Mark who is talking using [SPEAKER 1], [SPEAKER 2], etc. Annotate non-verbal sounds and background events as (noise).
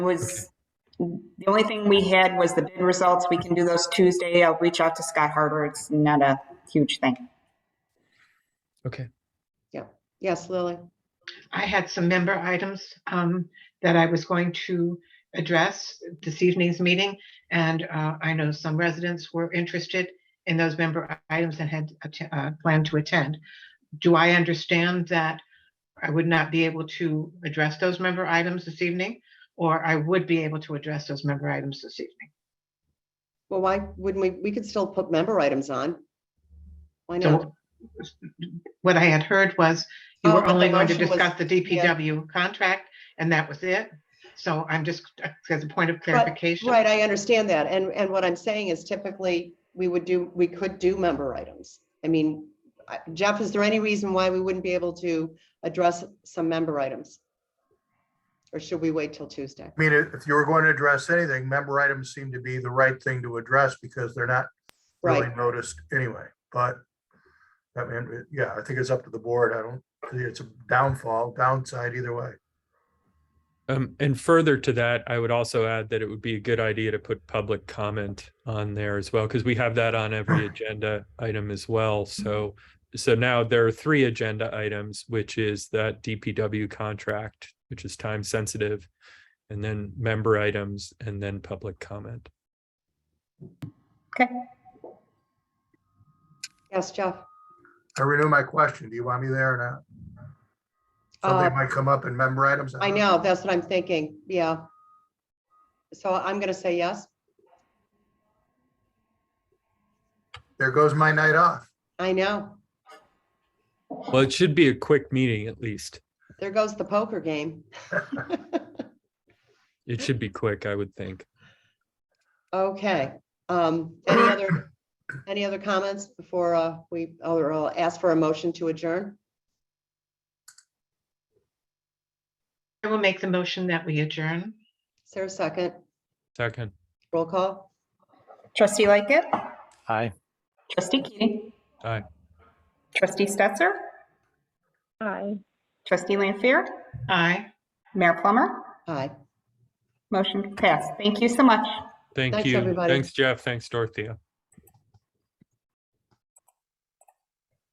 [SPEAKER 1] was, the only thing we had was the bid results. We can do those Tuesday. I'll reach out to Scott Harder. It's not a huge thing.
[SPEAKER 2] Okay.
[SPEAKER 3] Yes, Lily.
[SPEAKER 4] I had some member items um, that I was going to address this evening's meeting. And uh, I know some residents were interested in those member items and had atten- uh, planned to attend. Do I understand that I would not be able to address those member items this evening? Or I would be able to address those member items this evening?
[SPEAKER 3] Well, why wouldn't we, we could still put member items on. Why not?
[SPEAKER 4] So what I had heard was you
[SPEAKER 3] Oh,
[SPEAKER 4] were
[SPEAKER 3] but the
[SPEAKER 4] only going to
[SPEAKER 3] motion was-
[SPEAKER 4] discuss the DPW contract and that was it. So I'm just, as a point of clarification.
[SPEAKER 3] Right, I understand that. And, and what I'm saying is typically, we would do, we could do member items. I mean, I- Jeff, is there any reason why we wouldn't be able to address some member items? Or should we wait till Tuesday?
[SPEAKER 5] I mean, if if you were going to address anything, member items seem to be the right thing to address because they're not really
[SPEAKER 3] Right,
[SPEAKER 5] noticed anyway, but I mean, yeah, I think it's up to the board. I don't, think it's a downfall, downside either way.
[SPEAKER 2] Um, and further to that, I would also add that it would be a good idea to put public comment on there as well, because we have that on
[SPEAKER 3] (laughs)
[SPEAKER 2] every agenda item as well. So,
[SPEAKER 3] Mm-hmm.
[SPEAKER 2] so now there are three agenda items, which is that DPW contract, which is time sensitive, and then member items, and then public comment.
[SPEAKER 1] Okay.
[SPEAKER 3] yes, Jeff.
[SPEAKER 5] I renew my question. Do you want me there or not?
[SPEAKER 3] Uh,
[SPEAKER 5] Somebody might come up in member items.
[SPEAKER 3] I know, that's what I'm thinking, yeah. So I'm gonna say yes.
[SPEAKER 5] There goes my night off.
[SPEAKER 3] I know,
[SPEAKER 2] Well, it should be a quick meeting at least.
[SPEAKER 3] there goes the poker game.
[SPEAKER 2] It
[SPEAKER 3] (laughs)
[SPEAKER 2] should be quick, I would think.
[SPEAKER 3] Okay, um, any other, any other comments before, uh, we, or I'll ask for a motion to adjourn?
[SPEAKER 4] I will make the motion that we adjourn.
[SPEAKER 3] Is there a second?
[SPEAKER 2] Second,
[SPEAKER 3] Roll call?
[SPEAKER 1] Trustee Lightgit.
[SPEAKER 6] Aye.
[SPEAKER 1] Trustee Keating.
[SPEAKER 2] Aye.
[SPEAKER 1] Trustee Stetser.
[SPEAKER 7] Aye.
[SPEAKER 1] Trustee Lanfair.
[SPEAKER 4] Aye.
[SPEAKER 1] Mayor Plummer.
[SPEAKER 3] Aye.
[SPEAKER 1] Motion passed. Thank you so much.
[SPEAKER 2] thank
[SPEAKER 3] Thanks,
[SPEAKER 2] you.
[SPEAKER 3] everybody.
[SPEAKER 2] Thanks, Jeff. Thanks, Dorothea.